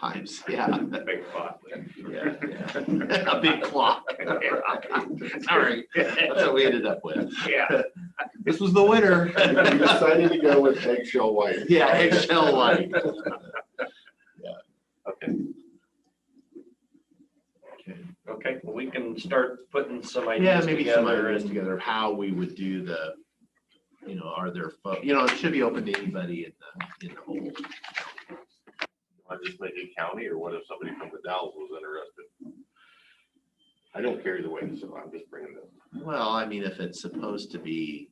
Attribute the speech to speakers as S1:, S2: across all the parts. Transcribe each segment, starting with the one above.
S1: times, yeah.
S2: Big pot.
S1: Yeah, yeah. A big clock. All right, that's what we ended up with.
S2: Yeah.
S1: This was the winner.
S3: We decided to go with eggshell white.
S1: Yeah, eggshell light.
S2: Okay, well, we can start putting some
S1: Yeah,
S2: ideas
S1: maybe some
S2: together
S1: ideas
S2: and,
S1: together of how we would do the, you know, are there, pho- you know, it should be open to anybody in the, in the whole.
S4: I just make it county, or what if somebody from the Dallas was interested? I don't care either way, so I'm just bringing this.
S1: Well, I mean, if it's supposed to be.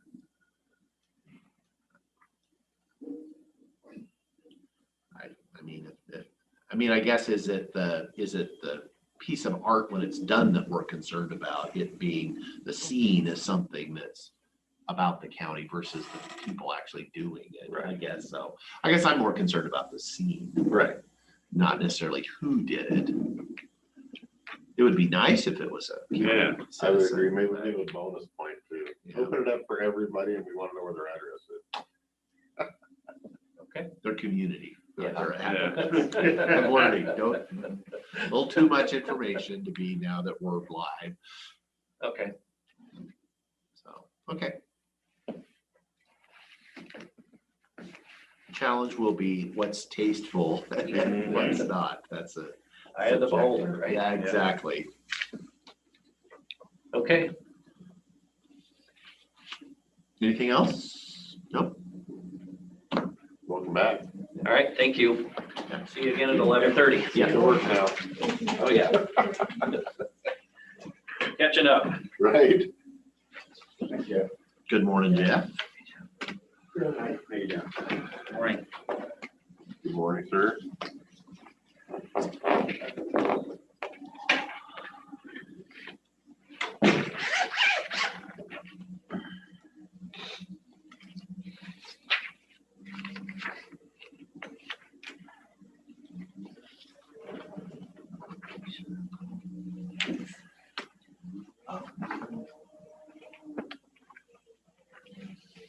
S1: I, I mean, if- if, I mean, I guess is it the, is it the piece of art when it's done that we're concerned about? It being, the scene is something that's about the county versus the people actually doing it, I
S2: Right.
S1: guess, so. I guess I'm more concerned about the scene,
S4: Right.
S1: not necessarily who did it. It would be nice if it was a. county
S4: Yeah, I would
S1: citizen.
S4: agree, maybe we do a bonus point
S1: Yeah.
S4: too. Open it up for everybody, and we want to know where their address is.
S2: okay.
S1: their community.
S4: Yeah.
S1: Their app. I'm
S2: Yeah.
S1: learning, don't, a little too much information to be now that we're live,
S2: Okay,
S1: so, okay. Challenge will be what's tasteful and what's not, that's a.
S2: I had the beholder, right?
S1: Yeah, exactly.
S2: Okay,
S1: Anything else? Nope.
S4: Welcome back.
S2: all right, thank you. See you again at eleven thirty.
S4: Good
S1: Yeah,
S4: work now.
S2: Oh, yeah. Catching up.
S4: Right.
S5: Thank you.
S1: good morning, Jeff.
S5: How you doing?
S2: All right.
S4: Good morning, sir.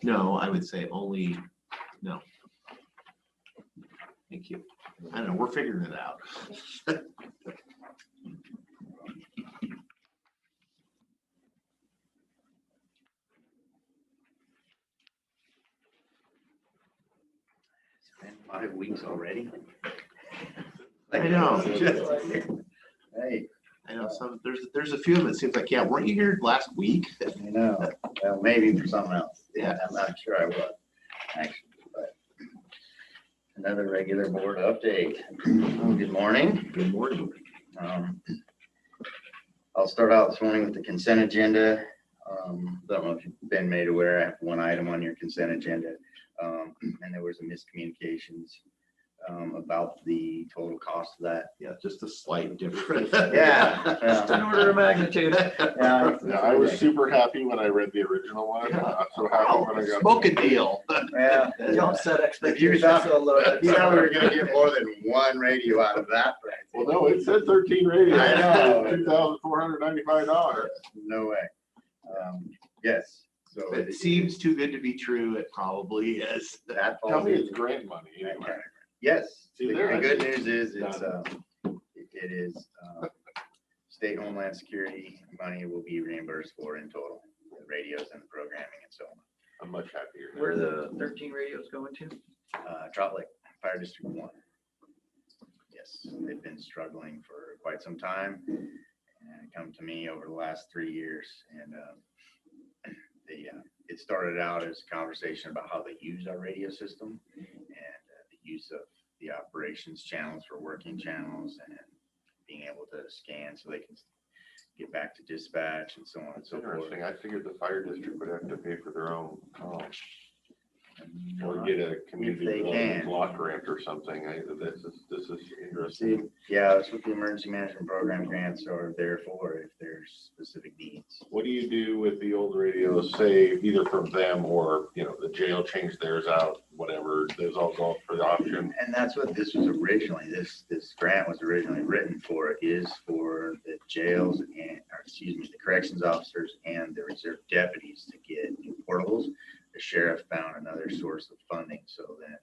S1: No, I would say only, no. Thank you. I don't know, we're figuring it out.
S5: Been Five weeks already?
S1: I know.
S5: Hey,
S1: I know some, there's, there's a few of them, it seems like, yeah, weren't you here last week?
S5: I know, well, maybe for something else.
S1: Yeah.
S5: I'm not sure I was, actually, but. Another regular board update. Good morning.
S1: Good morning.
S5: Um, I'll start out this morning with the consent agenda. Um, Don't know if you've been made aware, I have one item on your consent agenda. um, And there was a miscommunications um, about the total cost of that.
S1: Yeah, just a slight difference.
S5: Yeah.
S1: Just an order of magnitude.
S5: Yeah,
S4: Yeah, I was super happy when I read the original one.
S1: Yeah.
S4: Not so happy
S1: Wow,
S4: when I got.
S1: Smoke a deal.
S5: Yeah.
S6: Don't set expectations
S5: thought-
S6: so low.
S5: You know, we were gonna get more than one radio out of that. right?
S4: Well, no, it said thirteen radios.
S5: I know.
S4: Two thousand four hundred ninety-five dollars.
S5: No way. Um, Yes, so.
S1: If It seems too good to be true, it probably is.
S5: That
S4: Tell
S5: falls
S4: me it's
S5: into-
S4: grant money anyway.
S5: Yes,
S4: See,
S5: the
S4: there
S5: the
S4: I
S5: good
S4: see.
S5: news is it's,
S4: Done.
S5: um, it it is, um, state homeland security money will be reimbursed for in total, the radios and the programming and so on.
S4: I'm much happier. now.
S6: Where the thirteen radios going to?
S5: Uh, Trout Lake Fire District One. Yes, they've been struggling for quite some time and come to me over the last three years and, um, the, uh, it started out as a conversation about how they use our radio system and uh, the use of the operations channels for working channels and being able to scan so they can get back to dispatch and so on and
S4: It's
S5: so forth.
S4: interesting. I figured the fire district would have to pay for their own, um, or
S5: Uh,
S4: get a community
S5: Oh, they
S4: development
S5: can.
S4: block grant or something. I, this is, this is
S5: See,
S4: interesting.
S5: yeah, that's what the emergency management program grants are there for, if there's specific needs.
S4: What do you do with the old radios, say either from them or, you know, the jail changed theirs out, whatever, those all go up for the option?
S5: And that's what this was originally, this, this grant was originally written for, is for the jails and, or excuse me, the corrections officers and the reserve deputies to get new portables. The sheriff found another source of funding, so then